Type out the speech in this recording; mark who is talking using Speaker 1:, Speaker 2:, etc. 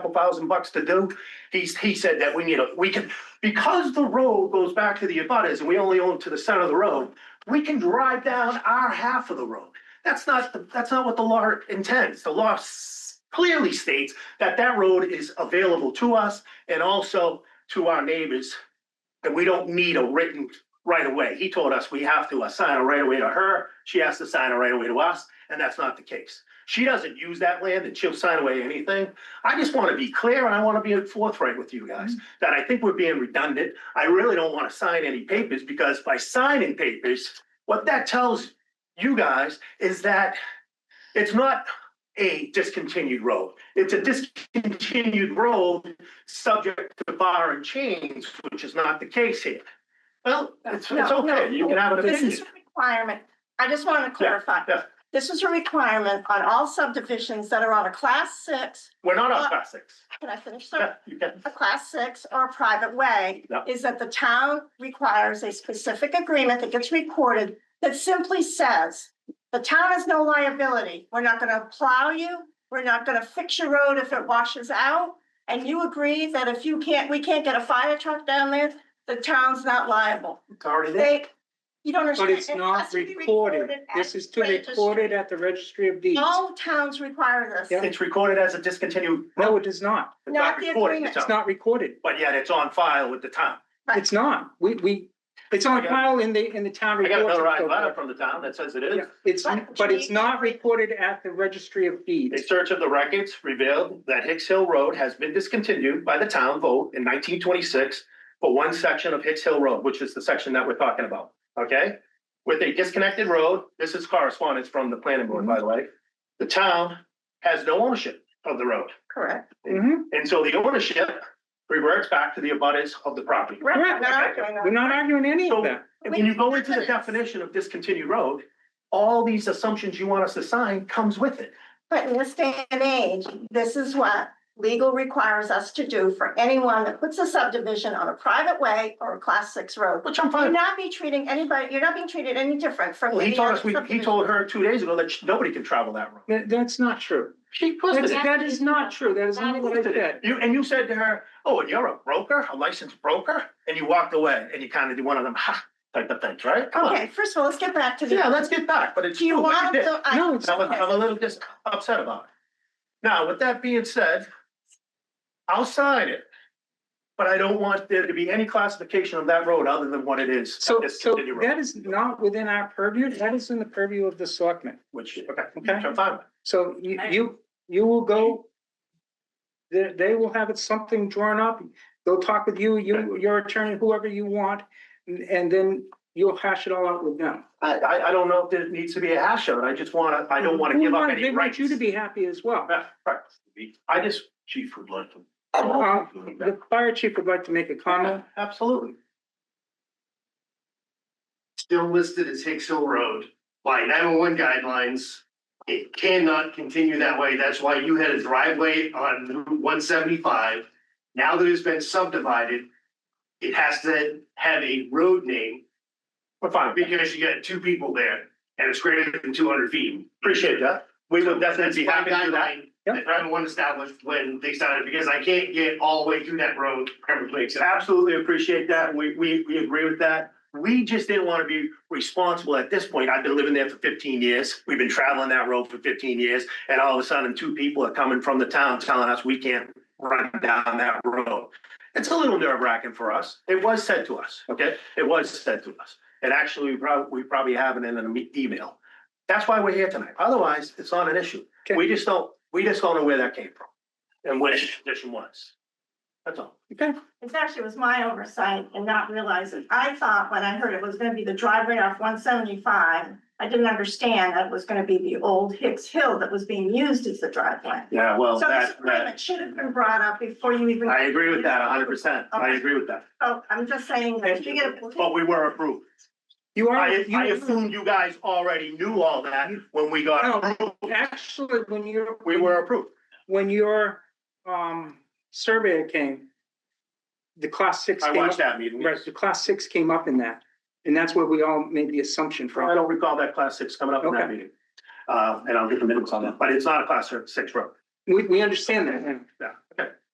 Speaker 1: couple thousand bucks to do. He's, he said that we need a, we can, because the road goes back to the abutters and we only own to the center of the road, we can drive down our half of the road. That's not, the- that's not what the law intends. The law s- clearly states that that road is available to us and also to our neighbors. And we don't need a written right away. He told us we have to assign a right away to her. She has to sign a right away to us, and that's not the case. She doesn't use that land and she'll sign away anything. I just want to be clear and I want to be forthright with you guys
Speaker 2: Mm-hmm.
Speaker 1: that I think we're being redundant. I really don't want to sign any papers because by signing papers, what that tells you guys is that it's not a discontinued road. It's a discontinued road subject to bar and chains, which is not the case here. Well, it's, it's
Speaker 2: No, no,
Speaker 1: okay. You can have an
Speaker 2: This is
Speaker 1: opinion.
Speaker 2: a requirement. I just want to clarify.
Speaker 1: yeah.
Speaker 2: This is a requirement on all subdivisions that are on a class six.
Speaker 1: We're not on class six.
Speaker 2: Can I finish?
Speaker 1: Yeah,
Speaker 2: sir?
Speaker 1: you can.
Speaker 2: A class six or a private way
Speaker 1: Yeah.
Speaker 2: is that the town requires a specific agreement that gets recorded that simply says the town has no liability. We're not going to plow you. We're not going to fix your road if it washes out. And you agree that if you can't, we can't get a fire truck down there, the town's not liable.
Speaker 1: It's already there.
Speaker 2: They, you don't
Speaker 3: But
Speaker 2: understand.
Speaker 3: it's
Speaker 2: It
Speaker 3: not
Speaker 2: has to be
Speaker 3: recorded.
Speaker 2: at
Speaker 3: This is
Speaker 2: the
Speaker 3: to
Speaker 2: registry.
Speaker 3: record it at the registry of deeds.
Speaker 2: All towns require this,
Speaker 3: Yeah.
Speaker 1: It's recorded as a discontinued.
Speaker 3: No, it is not.
Speaker 1: It's
Speaker 2: Not the
Speaker 1: recorded,
Speaker 2: agreement.
Speaker 1: it's
Speaker 3: It's
Speaker 1: not-
Speaker 3: not recorded.
Speaker 1: But yet it's on file with the town.
Speaker 3: It's not. We, we, it's on
Speaker 1: I got-
Speaker 3: file in the, in the town
Speaker 1: I got
Speaker 3: report.
Speaker 1: another letter from the town that says it is.
Speaker 3: It's,
Speaker 2: But
Speaker 3: but it's
Speaker 2: we-
Speaker 3: not recorded at the registry of
Speaker 1: A
Speaker 3: deeds.
Speaker 1: search of the records revealed that Hicks Hill Road has been discontinued by the town vote in nineteen twenty-six for one section of Hicks Hill Road, which is the section that we're talking about, okay? With a disconnected road, this is correspondence from the planning board, by the way. The town has no ownership of the road,
Speaker 2: correct?
Speaker 3: Mhm.
Speaker 1: and so the ownership reverts back to the abutters of the property.
Speaker 2: Right,
Speaker 3: Correct.
Speaker 2: we're not arguing that.
Speaker 3: We're not arguing any
Speaker 1: So-
Speaker 3: of that.
Speaker 1: And when you go into the definition of discontinued road, all these assumptions you want us to sign comes with it.
Speaker 2: But in this day and age, this is what legal requires us to do for anyone that puts a subdivision on a private way or a class six road.
Speaker 1: Which I'm fine.
Speaker 2: You're
Speaker 1: with.
Speaker 2: not be treating anybody, you're not being treated any different from.
Speaker 1: Well, he
Speaker 2: any
Speaker 1: told
Speaker 2: other
Speaker 1: us, we, he
Speaker 2: subdivision.
Speaker 1: told her two days ago that sh- nobody can travel that road.
Speaker 3: That- that's not true.
Speaker 1: She posted
Speaker 3: That's,
Speaker 1: it.
Speaker 3: that is not true. That is not what I said.
Speaker 1: You, and you said to her, oh, and you're a broker, a licensed broker? And you walked away and you kind of did one of them, ha, type of things, right? Come on.
Speaker 2: Okay, first of all, let's get back to the.
Speaker 1: Yeah, let's get back, but it's
Speaker 2: Do you
Speaker 1: true what
Speaker 2: want
Speaker 1: you did.
Speaker 2: to? I-
Speaker 3: No, it's
Speaker 1: I'm, I'm a little just upset about it. Now, with that being said, I'll sign it. But I don't want there to be any classification of that road other than what it is.
Speaker 3: So,
Speaker 1: this
Speaker 3: so
Speaker 1: city road,
Speaker 3: that is not within our purview. That is in the purview of the selectmen.
Speaker 1: Which, okay,
Speaker 3: Okay.
Speaker 1: which I'm fine with.
Speaker 3: So you, you, you will go. They, they will have it something drawn up. They'll talk with you, you, your attorney, whoever you want, and- and then you'll hash it all out with them.
Speaker 1: I, I, I don't know if there needs to be a hash of it. I just wanna, I don't wanna
Speaker 3: We
Speaker 1: give up
Speaker 3: want-
Speaker 1: any
Speaker 3: They
Speaker 1: rights.
Speaker 3: want you to be happy as well.
Speaker 1: Yeah, right. I just. Chief would like to.
Speaker 3: Uh, The fire chief would like to make a comment.
Speaker 1: Absolutely.
Speaker 4: still listed as Hicks Hill Road by nine-one-one guidelines. It cannot continue that way. That's why you had a driveway on Route one seventy-five. Now that it's been subdivided, it has to have a road name
Speaker 1: We're fine. We
Speaker 4: because you got two people there and it's greater than two hundred feet.
Speaker 1: Appreciate that. We would definitely be
Speaker 4: That's my
Speaker 1: happy to do that.
Speaker 4: guideline
Speaker 3: Yep.
Speaker 4: That nine-one-one established when they started, because I can't get all the way through that road every place.
Speaker 1: Absolutely appreciate that. We, we, we agree with that. We just didn't want to be responsible at this point. I've been living there for fifteen years. We've been traveling that road for fifteen years. And all of a sudden, two people are coming from the town telling us we can't run down that road. It's a little nerve wracking for us. It was said to us, okay? It was said to us. And actually, we probably, we probably have it in an e- email. That's why we're here tonight. Otherwise, it's not an issue.
Speaker 3: Okay.
Speaker 1: We just don't, we just don't know where that came from and what the condition was. That's all.
Speaker 3: Okay,
Speaker 2: It actually was my oversight and not realizing. I thought when I heard it was gonna be the driveway off one seventy-five, I didn't understand that it was gonna be the old Hicks Hill that was being used as the driveway.
Speaker 1: Yeah, well,
Speaker 2: So this
Speaker 1: that, that,
Speaker 2: agreement should have been brought up before you even,
Speaker 1: I agree with that hundred percent. I
Speaker 2: Okay.
Speaker 1: agree with that.
Speaker 2: oh, I'm just saying that if you get.
Speaker 1: But we were approved.
Speaker 3: you are.
Speaker 1: I,
Speaker 3: you
Speaker 1: I
Speaker 3: are-
Speaker 1: assumed you guys already knew all that when we got,
Speaker 3: No,
Speaker 1: approved.
Speaker 3: Actually, when you're.
Speaker 1: we were approved.
Speaker 3: When your, um, surveyor came, the class six.
Speaker 1: I
Speaker 3: came
Speaker 1: watched
Speaker 3: up-
Speaker 1: that meeting.
Speaker 3: Right, the class six came up in that, and that's where we all made the assumption
Speaker 1: I
Speaker 3: from.
Speaker 1: don't recall that class six coming up in that
Speaker 3: Okay.
Speaker 1: meeting. Uh, and I'll get the minutes on that, but it's not a class six road.
Speaker 3: We, we understand that, and
Speaker 1: Yeah.